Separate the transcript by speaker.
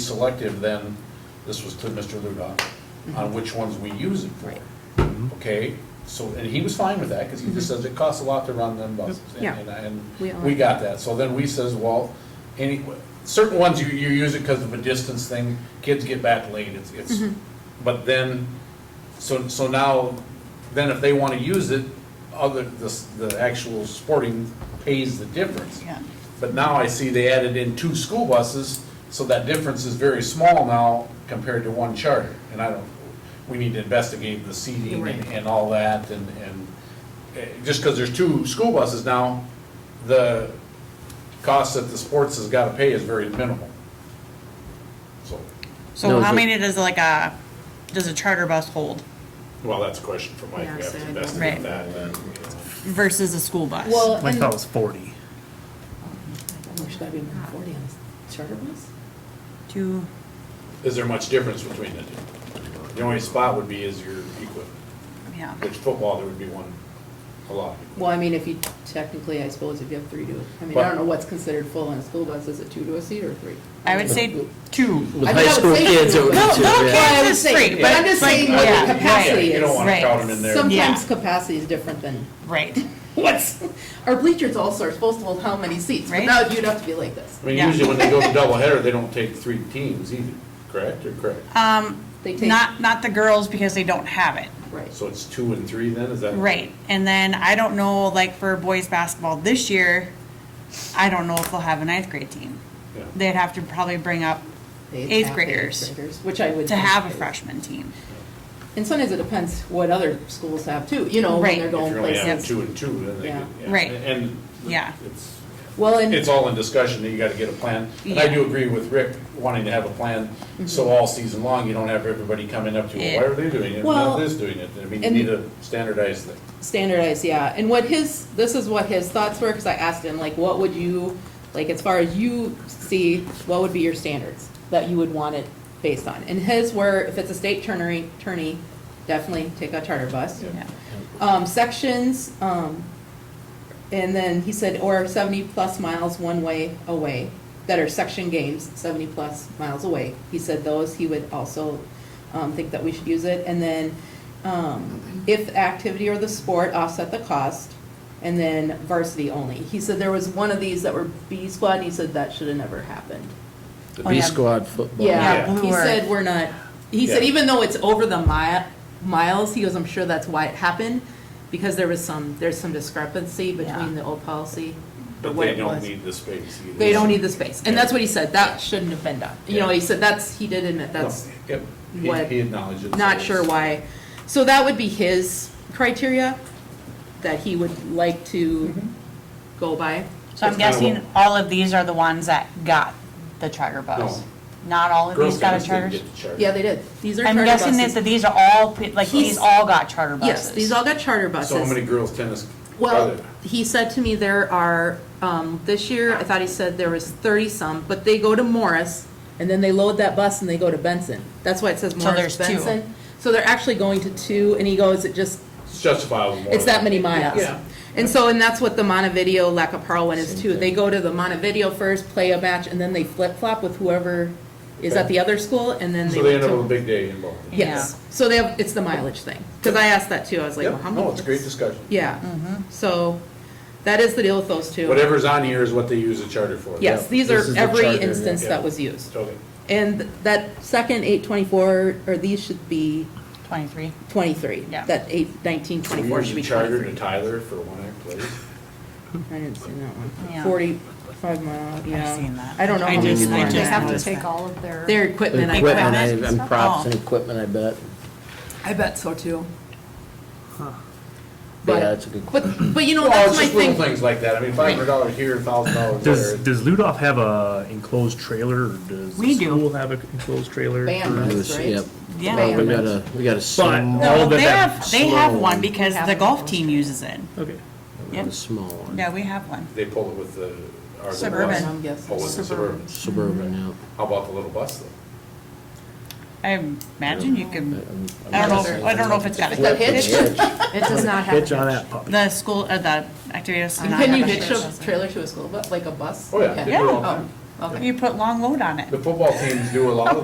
Speaker 1: selective than, this was to Mr. Ludoff, on which ones we use it for.
Speaker 2: Right.
Speaker 1: Okay, so, and he was fine with that, because he just says it costs a lot to run them buses. and-
Speaker 2: Yeah.
Speaker 1: And,
Speaker 2: We
Speaker 1: and
Speaker 2: all-
Speaker 1: we got that, so then we says, well, any, certain ones you, you use it because of a distance thing, kids get back late, it's, it's, but then, so, so now, then if they want to use it, other, the, the actual sporting pays the difference.
Speaker 3: Yeah.
Speaker 1: But now I see they added in two school buses, so that difference is very small now compared to one charter. And I don't, we need to investigate the seating and,
Speaker 2: Right.
Speaker 1: and all that and, and eh, just because there's two school buses now, the cost that the sports has got to pay is very minimal. So,
Speaker 4: No,
Speaker 3: So
Speaker 4: is
Speaker 3: how
Speaker 4: it-
Speaker 3: many does like a, does a charter bus hold
Speaker 5: Well, that's a question for Mike, we have to investigate
Speaker 3: Right.
Speaker 5: that. and,
Speaker 3: versus a school bus?
Speaker 2: Well,
Speaker 4: I
Speaker 2: and,
Speaker 4: thought it was forty.
Speaker 2: should that be more than forty on this charter bus?
Speaker 3: Two,
Speaker 1: is there much difference between the two? The only spot would be is your equipment,
Speaker 3: yeah.
Speaker 1: which football, there would be one, a lot.
Speaker 2: Well, I mean, if you, technically, I suppose if you have three to, I mean, I don't know what's considered full on a school bus, is it two to a seat or three?
Speaker 3: I would say two.
Speaker 4: With
Speaker 2: I
Speaker 4: high
Speaker 2: would
Speaker 4: school
Speaker 2: say-
Speaker 4: kids, it would be
Speaker 3: No,
Speaker 4: two,
Speaker 3: no
Speaker 4: yeah.
Speaker 3: kids.
Speaker 2: I would
Speaker 3: it's
Speaker 2: say-
Speaker 3: free,
Speaker 2: But
Speaker 3: but
Speaker 2: I'm just
Speaker 3: like-
Speaker 2: saying
Speaker 1: I
Speaker 2: what
Speaker 1: wouldn't-
Speaker 2: the capacity
Speaker 1: yeah, You don't
Speaker 2: is.
Speaker 1: want to
Speaker 3: right.
Speaker 1: crowd them in there.
Speaker 2: Sometimes
Speaker 3: Yeah.
Speaker 2: capacity is different than
Speaker 3: Right.
Speaker 2: what's, our bleachers also are supposed to hold how many seats, but
Speaker 3: Right.
Speaker 2: now you'd have to be like this.
Speaker 1: I mean,
Speaker 3: Yeah.
Speaker 1: usually when they go to doubleheader, they don't take three teams either, correct, or correct?
Speaker 2: Uh,
Speaker 3: Um,
Speaker 2: They take-
Speaker 3: not, not the girls because they don't have it.
Speaker 2: Right.
Speaker 1: So it's two and three then, is that?
Speaker 3: Right. And then I don't know, like for boys basketball this year, I don't know if they'll have a ninth grade team.
Speaker 1: Yeah.
Speaker 3: They'd have to probably bring up
Speaker 2: They
Speaker 3: Eighth
Speaker 2: have
Speaker 3: graders.
Speaker 2: Which I would.
Speaker 3: to have a
Speaker 2: think is-
Speaker 3: freshman team.
Speaker 2: And sometimes it depends what other schools have too, you know, when
Speaker 3: Right.
Speaker 2: they're
Speaker 1: If
Speaker 2: going
Speaker 1: you're only having
Speaker 2: places.
Speaker 1: two and two, then they
Speaker 2: Yeah.
Speaker 1: could. yeah.
Speaker 3: Right.
Speaker 1: And.
Speaker 3: Yeah.
Speaker 1: It's,
Speaker 2: Well, and,
Speaker 1: it's all in discussion, that you gotta get a plan. And I
Speaker 3: Yeah.
Speaker 1: do agree with Rick wanting to have a plan, so
Speaker 2: Mm-hmm.
Speaker 1: all season long, you don't have everybody coming up to, well, why
Speaker 3: Yeah.
Speaker 1: are they doing it?
Speaker 2: Well,
Speaker 1: Not this doing it, I mean, you
Speaker 2: and-
Speaker 1: need a standardized thing.
Speaker 2: standardized, yeah. And what his, this is what his thoughts were, because I asked him, like, what would you, like, as far as you see, what would be your standards that you would want it based on? And his were, if it's a state tourney, tourney, definitely take a charter bus.
Speaker 3: Yeah.
Speaker 2: Um, sections, um, and then he said, or seventy-plus miles one way away, that are section games, seventy-plus miles away. He said those, he would also, um, think that we should use it. And then, um, if the activity or the sport offset the cost, and then varsity only. He said there was one of these that were B squad, and he said that should have never happened.
Speaker 4: The
Speaker 3: Oh,
Speaker 4: B
Speaker 3: yeah.
Speaker 4: squad football.
Speaker 1: Yeah.
Speaker 2: Yeah,
Speaker 3: Blue
Speaker 2: he
Speaker 3: Earth.
Speaker 2: said we're not, he said
Speaker 1: Yeah.
Speaker 2: even though it's over the mi- miles, he goes, I'm sure that's why it happened, because there was some, there's some discrepancy
Speaker 3: Yeah.
Speaker 2: between the old policy.
Speaker 1: But
Speaker 2: what
Speaker 1: they
Speaker 2: it
Speaker 1: don't
Speaker 2: was.
Speaker 1: need the space either.
Speaker 2: They don't need the space, and
Speaker 1: Yeah.
Speaker 2: that's what he said, that shouldn't have been done. You know,
Speaker 1: Yeah.
Speaker 2: he said that's, he did admit that's
Speaker 1: No, Yep,
Speaker 2: what-
Speaker 1: he, he acknowledges. it, so
Speaker 2: not
Speaker 1: it's-
Speaker 2: sure why. So that would be his criteria that he would like to
Speaker 4: Mm-hmm.
Speaker 2: go by.
Speaker 4: So I'm
Speaker 1: It's kinda
Speaker 4: guessing all of these are the ones that got the charter bus? Not all of
Speaker 1: Girl
Speaker 4: these got
Speaker 1: Scouts
Speaker 4: a
Speaker 1: didn't
Speaker 4: charter?
Speaker 1: get the charter.
Speaker 2: Yeah, they did. These are
Speaker 4: I'm
Speaker 2: charter
Speaker 4: guessing that
Speaker 2: buses.
Speaker 4: that these are all, pe- like, these all got charter buses?
Speaker 2: Yes, these all got charter buses.
Speaker 1: So how many girls tennis uh, are
Speaker 2: Well,
Speaker 1: there?
Speaker 2: he said to me there are, um, this year, I thought he said there was thirty-some, but they go to Morris, and then they load that bus and they go to Benson. That's why it says
Speaker 4: So
Speaker 2: Morris
Speaker 4: there's two.
Speaker 2: Benson. So they're actually going to two, and he goes, it just,
Speaker 1: It's justifiable more.
Speaker 2: it's that many miles.
Speaker 1: Yeah.
Speaker 2: And so, and that's what the Montevideo Lacaparra one is too. They go to the Montevideo first, play a match, and then they flip-flop with whoever is at the other school, and then they.
Speaker 1: So they end
Speaker 2: go
Speaker 1: up
Speaker 2: to-
Speaker 1: with a big day involved.
Speaker 2: Yes, so they have, it's the mileage thing, because I asked that too, I was like,
Speaker 1: Yeah,
Speaker 2: well, how much?
Speaker 1: no, it's a great discussion.
Speaker 2: Yeah, so that is the deal with those two.
Speaker 1: Whatever's on here is what they use a charter for.
Speaker 2: Yes, these
Speaker 4: This is
Speaker 2: are
Speaker 4: the
Speaker 2: every
Speaker 4: charter,
Speaker 2: instance
Speaker 1: yeah.
Speaker 2: that was used.
Speaker 1: Okay.
Speaker 2: And that second eight twenty-four, or these should be
Speaker 4: Twenty-three.
Speaker 2: twenty-three.
Speaker 4: Yeah.
Speaker 2: That eight nineteen
Speaker 1: We
Speaker 2: twenty-four
Speaker 1: use
Speaker 2: should
Speaker 1: a
Speaker 2: be
Speaker 1: charter to
Speaker 2: twenty-three.
Speaker 1: Tyler for one act play.
Speaker 2: I didn't see that one.
Speaker 4: Yeah.
Speaker 2: Forty-five mile, yeah.
Speaker 4: seen that.
Speaker 2: I don't know
Speaker 3: I
Speaker 2: how many.
Speaker 3: just-
Speaker 2: they
Speaker 3: I
Speaker 2: are.
Speaker 3: just
Speaker 2: They have to
Speaker 3: noticed.
Speaker 2: take
Speaker 4: that.
Speaker 6: all of their.
Speaker 2: Their equipment,
Speaker 4: The
Speaker 2: I
Speaker 4: Equipment
Speaker 2: bet.
Speaker 4: I- and props
Speaker 3: Oh.
Speaker 4: and equipment, I bet.
Speaker 2: I bet so too.
Speaker 4: Yeah,
Speaker 2: But-
Speaker 4: that's a good
Speaker 2: But, but you know,
Speaker 1: Well,
Speaker 2: that's
Speaker 1: it's
Speaker 2: my
Speaker 1: just little
Speaker 2: thing.
Speaker 1: things like that. I mean, five hundred dollars here, thousand dollars
Speaker 7: Does,
Speaker 1: there.
Speaker 7: does Ludoff have a enclosed trailer, or does
Speaker 3: We
Speaker 7: the
Speaker 3: do.
Speaker 7: school have an enclosed trailer?
Speaker 2: Band
Speaker 7: for-
Speaker 4: It
Speaker 2: bus,
Speaker 4: was-
Speaker 2: right?
Speaker 4: Yep.
Speaker 3: Yeah.
Speaker 2: Band
Speaker 4: We
Speaker 2: bus.
Speaker 4: got a, we got a small,
Speaker 7: all
Speaker 3: No,
Speaker 7: the
Speaker 3: they
Speaker 7: bad-
Speaker 3: have, they have
Speaker 4: slow.
Speaker 3: one because the golf team uses it.
Speaker 7: Okay.
Speaker 4: we got a small one.
Speaker 3: Yeah, we have one.
Speaker 1: They pull it with the. our little
Speaker 3: Suburban.
Speaker 1: bus.
Speaker 2: I'm guessing.
Speaker 1: Oh, with the suburban.
Speaker 4: Suburban, yeah.
Speaker 1: How about the little bus though?
Speaker 3: I imagine you could,
Speaker 4: I'm- I'm
Speaker 3: I don't
Speaker 4: guessing.
Speaker 3: know, I don't know if it's got
Speaker 2: The
Speaker 3: a
Speaker 2: hitch,
Speaker 4: Hitch.
Speaker 6: It does not have.
Speaker 7: Hitch on that puppy.
Speaker 3: The school, uh, the activators do not
Speaker 2: can
Speaker 4: Uh-huh.
Speaker 3: have
Speaker 2: you
Speaker 3: a
Speaker 2: hitch
Speaker 3: hitch.
Speaker 2: a trailer to a school bus, like a bus?
Speaker 1: Oh, yeah.
Speaker 2: Okay.
Speaker 1: They do it all the
Speaker 2: Oh,
Speaker 1: time.
Speaker 4: Okay.
Speaker 3: You put long load on it.
Speaker 1: The football teams do a lot of